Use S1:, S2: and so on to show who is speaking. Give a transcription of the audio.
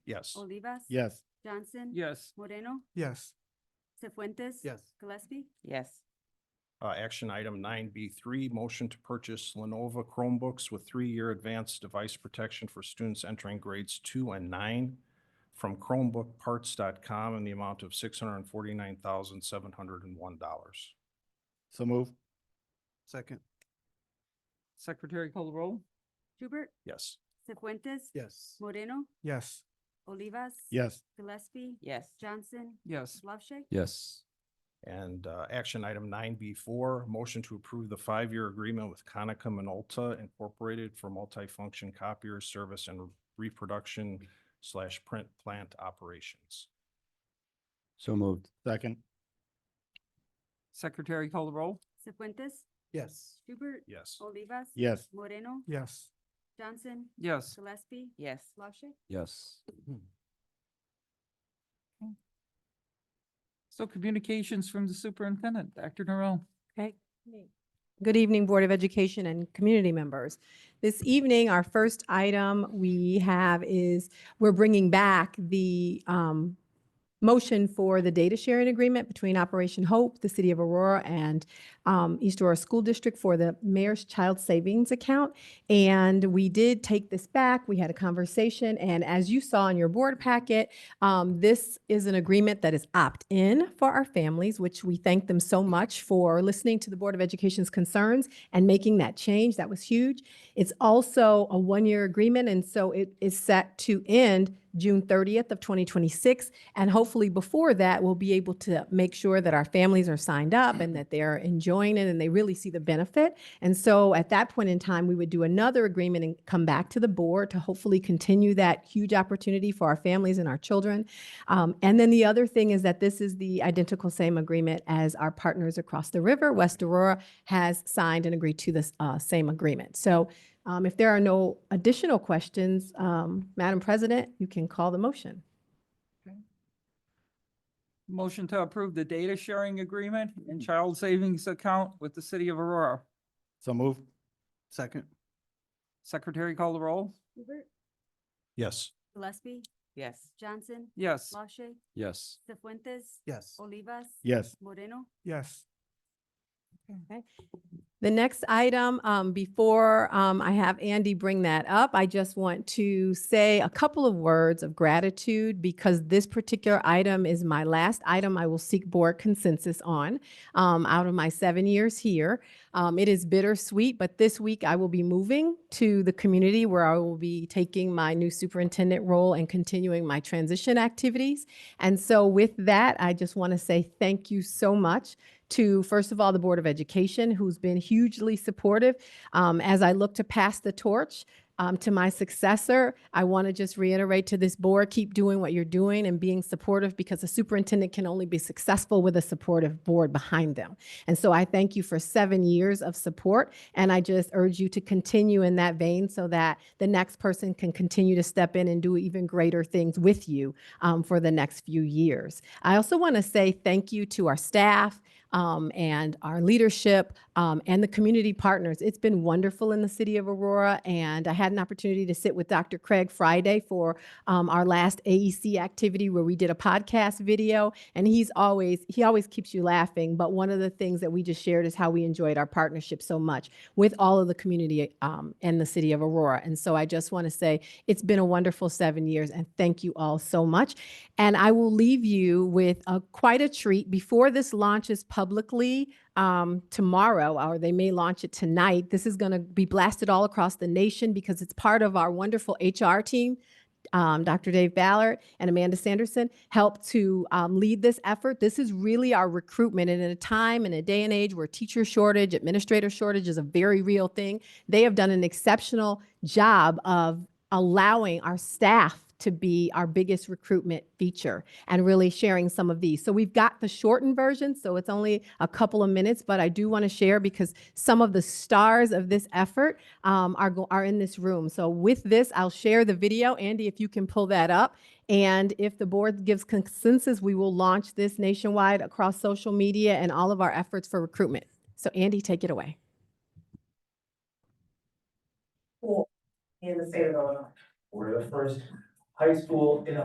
S1: Yes.
S2: Olivas.
S3: Yes.
S2: Johnson.
S4: Yes.
S2: Moreno.
S5: Yes.
S2: Cefuentes.
S5: Yes.
S2: Gillespie.
S6: yes,
S1: Uh, action item nine B three, motion to purchase Lenovo Chromebooks with three-year advanced device protection for students entering grades two and nine from Chromebookparts.com in the amount of six hundred and forty-nine thousand, seven hundred and one dollars.
S3: So move.
S5: Second.
S4: Secretary call the roll?
S2: Hubert.
S1: Yes.
S2: Cefuentes.
S5: Yes.
S2: Moreno.
S5: Yes.
S2: Olivas.
S3: Yes.
S2: Gillespie.
S6: yes,
S2: Johnson.
S4: Yes.
S2: LaShay.
S7: yes,
S1: And uh, action item nine B four, motion to approve the five-year agreement with Conica Minolta Incorporated for multifunction copier service and reproduction slash print plant operations.
S7: so moved,
S3: Second.
S4: Secretary call the roll?
S2: Cefuentes.
S5: Yes.
S2: Hubert.
S1: Yes.
S2: Olivas.
S3: Yes.
S2: Moreno.
S5: Yes.
S2: Johnson.
S4: Yes.
S2: Gillespie.
S6: yes.
S2: LaShay.
S7: yes.
S4: So communications from the superintendent, Dr. Norrell.
S8: Okay. Good evening, Board of Education and community members. This evening, our first item we have is we're bringing back the um, motion for the data sharing agreement between Operation Hope, the City of Aurora, and um, East Aurora School District for the Mayor's Child Savings Account. And we did take this back. We had a conversation, and as you saw in your board packet, um, this is an agreement that is opt-in for our families, which we thank them so much for listening to the Board of Education's concerns and making that change. That was huge. It's also a one-year agreement, and so it is set to end June 30th of 2026. And hopefully before that, we'll be able to make sure that our families are signed up and that they're enjoying it and they really see the benefit. And so at that point in time, we would do another agreement and come back to the board to hopefully continue that huge opportunity for our families and our children. Um, and then the other thing is that this is the identical same agreement as our partners across the river. West Aurora has signed and agreed to this uh, same agreement. So um, if there are no additional questions, um, Madam President, you can call the motion.
S4: Motion to approve the data sharing agreement and child savings account with the city of Aurora.
S3: So move.
S5: Second.
S4: Secretary call the roll?
S2: Hubert.
S1: Yes.
S2: Gillespie.
S6: Yes,
S2: Johnson.
S4: Yes.
S2: LaShay.
S7: Yes,
S2: Cefuentes.
S5: Yes.
S2: Olivas.
S3: Yes.
S2: Moreno.
S5: Yes.
S8: The next item, um, before, um, I have Andy bring that up, I just want to say a couple of words of gratitude because this particular item is my last item I will seek board consensus on, um, out of my seven years here. Um, it is bittersweet, but this week I will be moving to the community where I will be taking my new superintendent role and continuing my transition activities. And so with that, I just want to say thank you so much to, first of all, the Board of Education, who's been hugely supportive. Um, as I look to pass the torch um, to my successor, I want to just reiterate to this board keep doing what you're doing and being supportive because a superintendent can only be successful with a supportive board behind them. And so I thank you for seven years of support. And I just urge you to continue in that vein so that the next person can continue to step in and do even greater things with you um, for the next few years. I also want to say thank you to our staff, um, and our leadership um, and the community partners. It's been wonderful in the city of Aurora, and I had an opportunity to sit with Dr. Craig Friday for um, our last AEC activity where we did a podcast video, and he's always he always keeps you laughing. But one of the things that we just shared is how we enjoyed our partnership so much with all of the community um, and the city of Aurora. And so I just want to say it's been a wonderful seven years, and thank you all so much. And I will leave you with a, quite a treat before this launches publicly um, tomorrow, or they may launch it tonight. This is going to be blasted all across the nation because it's part of our wonderful HR team. Um, Dr. Dave Ballard and Amanda Sanderson helped to um, lead this effort. This is really our recruitment. And in a time and a day and age where teacher shortage, administrator shortage is a very real thing, they have done an exceptional job of allowing our staff to be our biggest recruitment feature and really sharing some of these. So we've got the shortened version, so it's only a couple of minutes, but I do want to share because some of the stars of this effort um, are go- are in this room. So with this, I'll share the video. Andy, if you can pull that up, and if the board gives consensus, we will launch this nationwide across social media and all of our efforts for recruitment. So Andy, take it away.
S9: in the state of Illinois. We're the first high school in